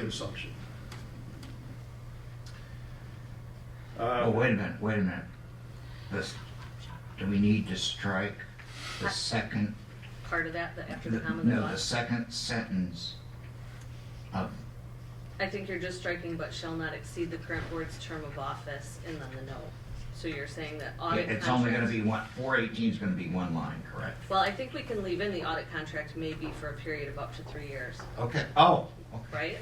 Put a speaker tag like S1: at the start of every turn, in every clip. S1: assumption.
S2: Uh,
S3: Oh, wait a minute, wait a minute. This, do we need to strike the second?
S4: part of that, the after the
S3: the-
S4: comma, the
S3: No, the
S4: but?
S3: second sentence of,
S4: I think you're just striking, but shall not exceed the current board's term of office, and then the no. So you're saying that audit contract.
S3: it's only gonna be one, four eighteen's gonna be one line, correct?
S4: Well, I think we can leave in the audit contract maybe for a period of up to three years,
S3: Okay, oh, okay.
S4: right?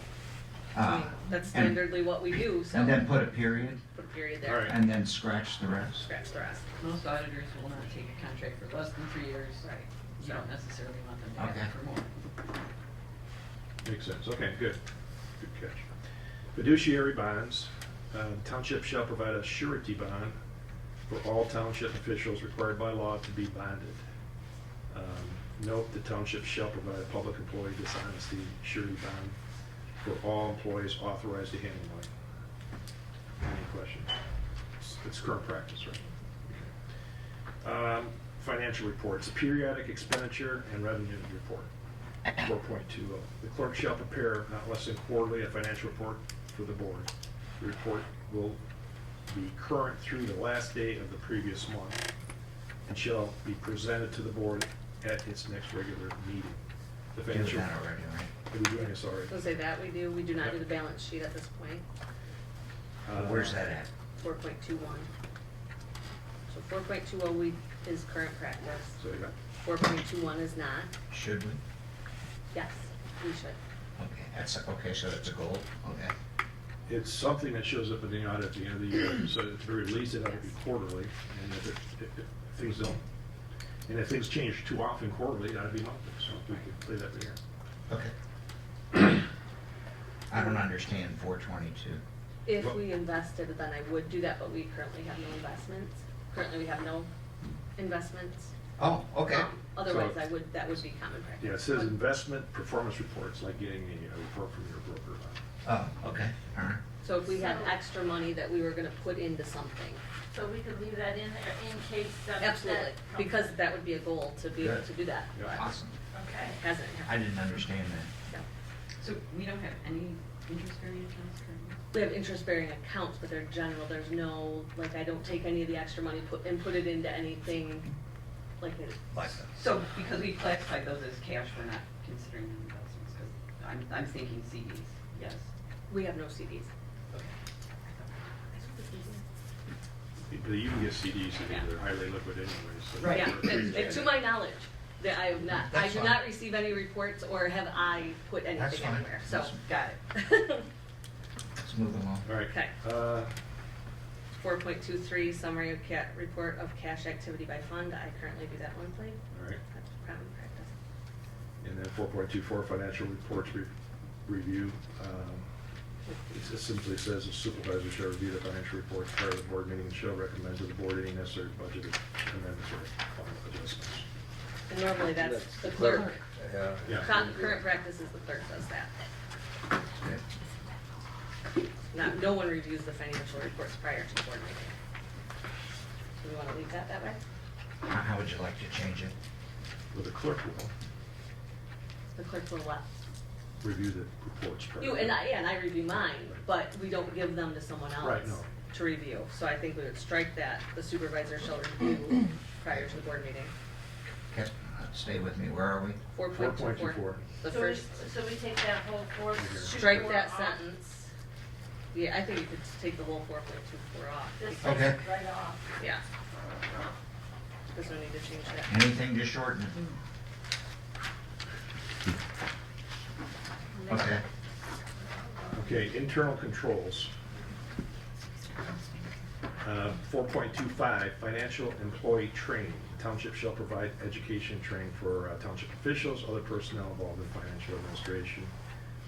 S4: I
S3: Uh,
S4: mean, that's
S3: and-
S4: standardly what we do, so
S3: And then put a period,
S4: put a period
S2: All
S4: there,
S2: right.
S3: and then scratch the rest?
S4: scratch the rest.
S5: Most auditors will not take a contract for less than three years.
S4: Right.
S5: You don't necessarily want them to have
S3: Okay.
S5: it for more.
S2: Makes sense, okay, good, good catch. Fiduciary bonds, uh, township shall provide a surety bond for all township officials required by law to be bonded. Um, Note, the township shall provide a public employee dishonesty surety bond for all employees authorized to handle money. Any questions? It's- It's current practice, right? Um, Financial reports, periodic expenditure and revenue report. 4.20. oh. The clerk shall prepare not less than quarterly a financial report for the board. The report will be current through the last day of the previous month and shall be presented to the board at its next regular meeting. The
S3: Do
S2: financial,
S3: that
S2: are
S3: already, right?
S2: we doing this already?
S4: So say that we do, we do not do the balance sheet at this point,
S2: Uh,
S3: Where's that at?
S4: four point two one. So four point two oh we, is current practice,
S2: So you got
S4: four point two one is not,
S3: Should we?
S4: yes, we should.
S3: Okay, that's, okay, so that's a goal, okay.
S2: It's something that shows up in the audit at the end of the year, so at the very least, it ought to be quarterly, and if, it- if if things don't, and if things change too often quarterly, it ought to be monthly, so we could play that there.
S3: Okay. I don't understand four twenty-two.
S4: If
S2: Well-
S4: we invested, then I would do that, but we currently have no investments. Currently, we have no investments.
S3: Oh, okay.
S4: Um, Otherwise,
S2: So-
S4: I would, that would be common practice.
S2: Yeah, it says investment performance reports, like getting a uh, report from your broker.
S3: Oh, okay, all right.
S4: So if we had extra money that we were gonna put into something,
S6: So we could leave that in there in case that.
S4: absolutely,
S6: that-
S4: because that would be a goal to be able
S2: Yeah.
S4: to do that.
S2: Yeah.
S4: but
S3: Awesome.
S6: Okay.
S4: Hasn't
S3: I
S4: happened.
S3: didn't understand that.
S4: so.
S5: So we don't have any interest-bearing accounts currently?
S4: We have interest-bearing accounts, but they're general, there's no, like, I don't take any of the extra money put and put it into anything like it.
S3: Like,
S5: So because we classify those as cash, we're not considering them investments, because I'm, I'm thinking CDs, yes.
S4: We have no CDs.
S2: But you can get CDs, I think they're highly liquid anyways. so-
S5: Right.
S4: Yeah,
S5: That's-
S4: and to my knowledge, that I have not, I
S3: That's
S4: do
S3: fine.
S4: not receive any reports or have I put
S3: That's
S4: anything
S3: fine.
S4: anywhere, so.
S3: That's-
S5: Got it.
S3: Let's move along.
S2: All right.
S4: Okay.
S2: Uh,
S4: Four point two three, summary of cat, report of cash activity by fund, I currently do that monthly,
S2: All right,
S4: that's common practice.
S2: and then 4.24, financial reports re- review. Um, It just simply says the supervisor shall review the financial reports prior to the board meeting and shall recommend to the board any necessary budget amendments or final adjustments.
S4: And normally that's the clerk,
S2: Yeah.
S4: Con- current practice is the clerk does that,
S3: Okay.
S4: not, no one reviews the financial reports prior to the board meeting. Do we wanna leave that that way?
S3: How- How would you like to change it?
S2: Well, the clerk will
S4: The clerk will what?
S2: review the reports. prior.
S4: You, and I, yeah, and I review mine, but we don't give them to someone else.
S2: Right, no.
S4: To review, so I think we would strike that, the supervisor shall review prior to the board meeting.
S3: Okay, uh, stay with me, where are we?
S4: Four point two four,
S2: 4.24.
S4: the
S6: So we-
S4: first,
S6: So we take that whole four.
S4: strike
S6: four
S4: that
S6: off.
S4: sentence. Yeah, I think you could take the whole four point two four off,
S6: Just
S3: Okay.
S6: take it right off.
S4: yeah. Cause we need to change that.
S3: Anything to shorten it? Okay,
S2: Okay, internal controls. Uh, 4.25, financial employee training. The Township shall provide education training for uh, township officials, other personnel involved in financial administration,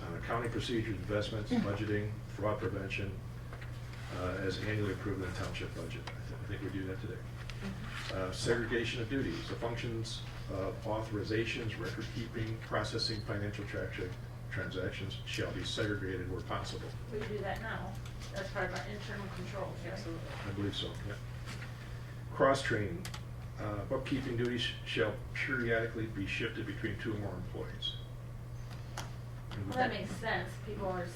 S2: uh, accounting procedures, investments, budgeting, fraud prevention, uh, as annually approved in the township budget. I thi- I think we do that today. Uh, Segregation of duties, the functions of authorizations, record keeping, processing, financial traction- transactions shall be segregated where possible.
S6: We do that now. That's part of our internal controls, right?
S4: Absolutely.
S2: I believe so, yeah. Cross-training, uh, bookkeeping duties shall periodically be shifted between two or more employees.
S6: Well, that makes sense. People are